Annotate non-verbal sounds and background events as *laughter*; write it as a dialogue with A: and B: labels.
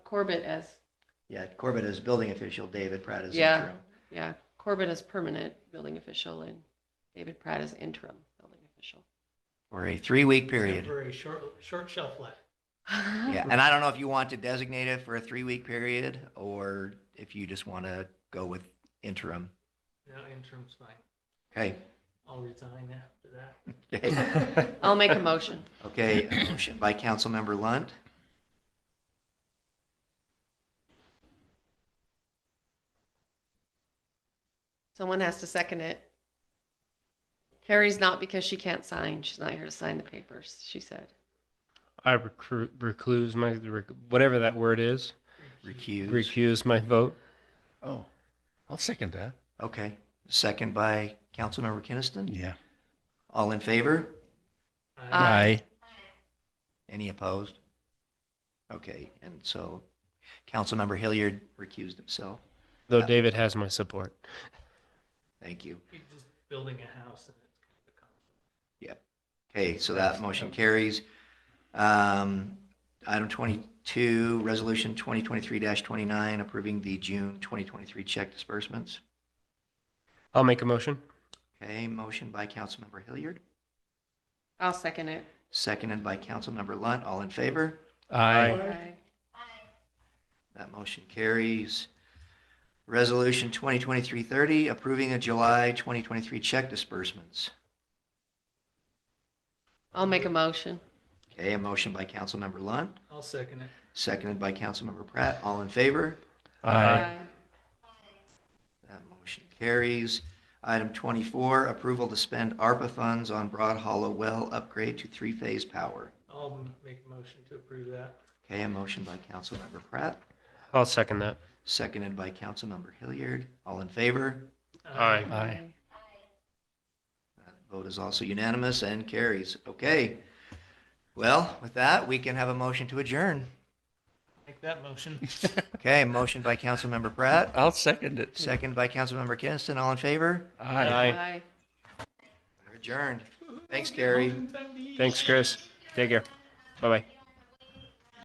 A: Corbett as,
B: Yeah, Corbett is building official, David Pratt is
A: Yeah.
B: interim.
A: yeah, Corbett as permanent building official and David Pratt as interim building official.
B: For a three-week period.
C: *laughs* Temporary short, short shelf life.
B: Yeah, and I don't know if you want to designate it for a three-week period or if you just want to go with interim.
C: No, interim's fine.
B: Okay.
C: I'll resign after that.
B: *laughs*
A: I'll make a motion.
B: Okay, a motion by Councilmember Lunt.
A: Someone has to second it. Carrie's not because she can't sign. She's not here to sign the papers, she said.
D: I recruit, recluse my, rec- whatever that word is,
B: Recuse.
D: recuse my vote.
E: Oh, I'll second that.
B: Okay, second by Councilmember Kinnison.
E: Yeah.
B: All in favor?
A: Aye.
C: I
D: Uh,
E: Aye.
B: Any opposed? Okay, and so Councilmember Hilliard recused himself.
D: Though
B: Yeah.
D: David has my support.
B: Thank you.
C: You're just building a house and it's kind of a conflict.
B: Okay, so that motion carries. Um, Item 22, Resolution 2023-29, approving the June 2023 check disbursements.
D: I'll make a motion.
B: Okay, motion by Councilmember Hilliard,
A: I'll second it.
B: seconded by Councilmember Lunt. All in favor?
D: Aye.
A: Aye.
B: That motion carries. Resolution 2023-30, approving a July 2023 check disbursements.
A: I'll make a motion.
B: Okay, a motion by Councilmember Lunt,
C: I'll second it.
B: seconded by Councilmember Pratt. All in favor?
D: Aye.
B: That motion carries. Item 24, approval to spend ARPA funds on Broad Hollow Well upgrade to three-phase power.
C: I'll m- make a motion to approve that.
B: Okay, a motion by Councilmember Pratt,
D: I'll second that.
B: seconded by Councilmember Hilliard. All in favor?
C: Uh,
D: Aye.
E: Aye.
B: That Vote is also unanimous and carries. Okay. Well, with that, we can have a motion to adjourn.
C: Make that motion.
B: Okay, motion by Councilmember Pratt,
E: I'll second it.
B: second by Councilmember Kinnison. All in favor?
D: Aye.
A: Aye.
B: Adjourned. Thanks, Gary.
D: Thanks, Chris. Take care. Bye-bye.